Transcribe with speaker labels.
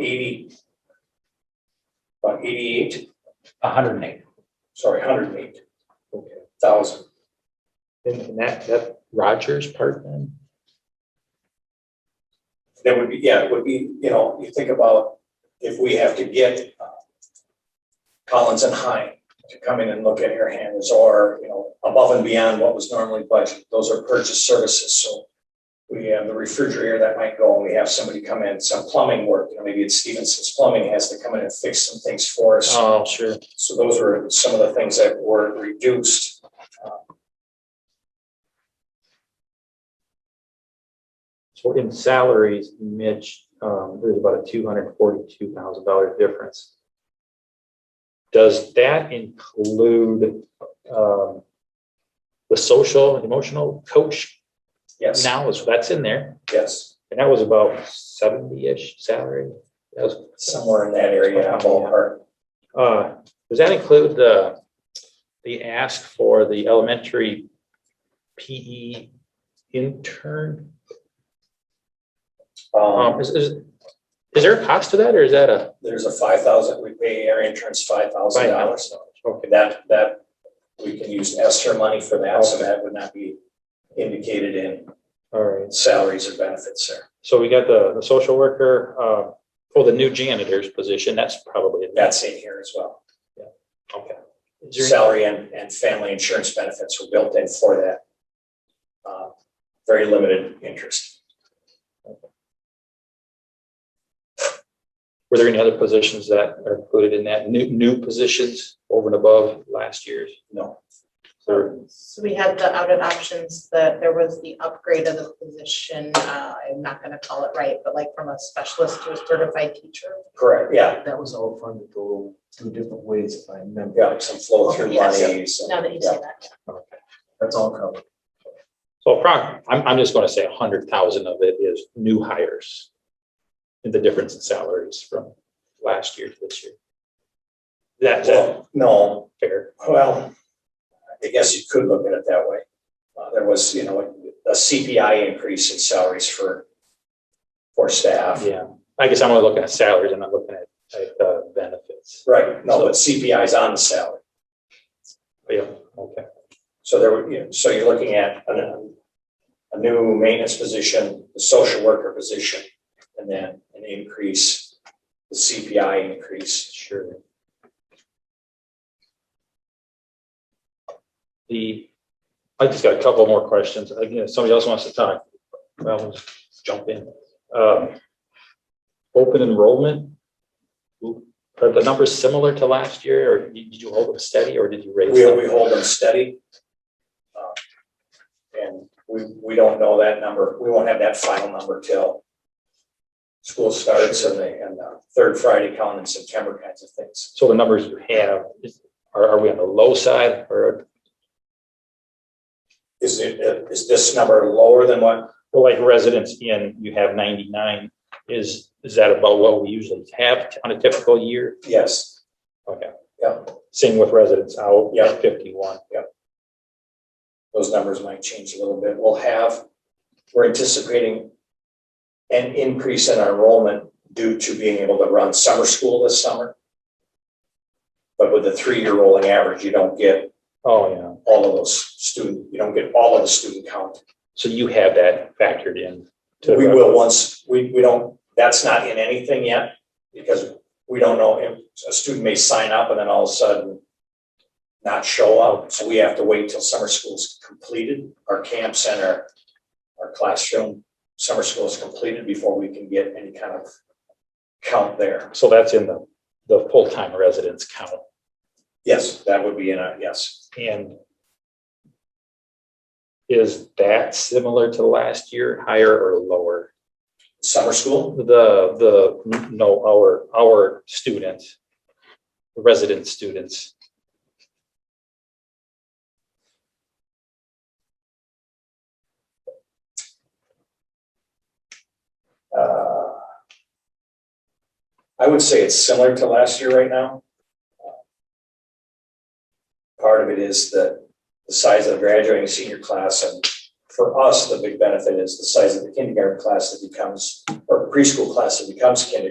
Speaker 1: eighty. About eighty-eight,
Speaker 2: hundred and eight.
Speaker 1: sorry, hundred and eight thousand.
Speaker 2: And that, that Rogers part then?
Speaker 1: That would be, yeah, it would be, you know, you think about if we have to get uh, Collins and Hine to come in and look at air handlers or, you know, above and beyond what was normally budgeted. Those are purchase services, so we have the refrigerator that might go and we have somebody come in, some plumbing work, you know, maybe it's Stevenson's Plumbing has to come in and fix some things for us.
Speaker 2: Oh, sure.
Speaker 1: So those were some of the things that were reduced.
Speaker 2: So in salaries, Mitch, um, there's about a two hundred forty-two thousand dollar difference. Does that include, um, the social and emotional coach
Speaker 1: Yes,
Speaker 2: now is, that's in there?
Speaker 1: yes,
Speaker 2: And that was about seventy-ish salary. That was,
Speaker 1: somewhere in that area, ballpark.
Speaker 2: uh, does that include the, the ask for the elementary PE intern?
Speaker 1: Um,
Speaker 2: Um, is, is, is there a cost to that or is that a,
Speaker 1: there's a five thousand, we pay our interns five thousand dollars.
Speaker 2: okay,
Speaker 1: That, that, we can use Esther money for that, so that would not be indicated in
Speaker 2: all right.
Speaker 1: salaries or benefits there.
Speaker 2: So we got the, the social worker, uh, or the new janitor's position, that's probably. in there.
Speaker 1: That's in here as well.
Speaker 2: Okay. Is there-
Speaker 1: Salary and, and family insurance benefits were built in for that. Uh, Very limited interest.
Speaker 2: Were there any other positions that are included in that, new, new positions over and above last year's?
Speaker 1: No.
Speaker 2: Or-
Speaker 3: So we had the out of options, that there was the upgrade of the position, uh, I'm not gonna call it right, but like from a specialist to a certified teacher.
Speaker 1: Correct, yeah,
Speaker 4: That was all funded though, two different ways, if I remember.
Speaker 1: yeah, some flow through
Speaker 3: Yes.
Speaker 1: money, some-
Speaker 3: Now that you
Speaker 1: yeah.
Speaker 3: say that,
Speaker 4: That's all covered.
Speaker 2: So approximately, I'm, I'm just gonna say a hundred thousand of it is new hires. And the difference in salaries from last year to this year. That's
Speaker 1: Well, no,
Speaker 2: fair.
Speaker 1: Well, I guess you could look at it that way. Uh, There was, you know, a CPI increase in salaries for, for staff.
Speaker 2: Yeah, I guess I'm only looking at salaries, I'm not looking at, at uh, benefits.
Speaker 1: Right, no, but CPI is on the salary.
Speaker 2: But Yeah, okay,
Speaker 1: So there would, you know, so you're looking at a, a new maintenance position, the social worker position, and then an increase, the CPI increase.
Speaker 2: sure. The, I just got a couple more questions. Again, if somebody else wants to talk, well, we'll just jump in. Um, Open enrollment? Are the numbers similar to last year, or did you hold them steady, or did you raise
Speaker 1: We,
Speaker 2: them?
Speaker 1: we hold them steady. Uh, And we, we don't know that number, we won't have that final number till school starts and the, and the third Friday count in September kinds of things.
Speaker 2: So the numbers you have, is- are, are we on the low side, or,
Speaker 1: Is it, uh, is this number lower than what,
Speaker 2: well, like residents in, you have ninety-nine, is, is that about what we usually have on a typical year?
Speaker 1: yes,
Speaker 2: Okay.
Speaker 1: Yeah.
Speaker 2: Same with residents out.
Speaker 1: Yeah.
Speaker 2: Fifty-one.
Speaker 1: those numbers might change a little bit, we'll have, we're anticipating an increase in our enrollment due to being able to run summer school this summer. But with the three-year rolling average, you don't get
Speaker 2: Oh, yeah.
Speaker 1: all of those student, you don't get all of the student count.
Speaker 2: So you have that factored in. to-
Speaker 1: We will once, we, we don't, that's not in anything yet, because we don't know if a student may sign up and then all of a sudden not show up, so we have to wait till summer school's completed, our camps and our, our classroom, summer school is completed before we can get any kind of count there.
Speaker 2: So that's in the, the full-time residents count
Speaker 1: Yes, that would be in a, yes,
Speaker 2: and is that similar to last year, higher or lower?
Speaker 1: summer school,
Speaker 2: The, the, no, our, our students, resident students.
Speaker 1: Uh, I would say it's similar to last year right now. Uh, Part of it is the, the size of the graduating senior class, and for us, the big benefit is the size of the kindergarten class that becomes, or preschool class that becomes kindergarten.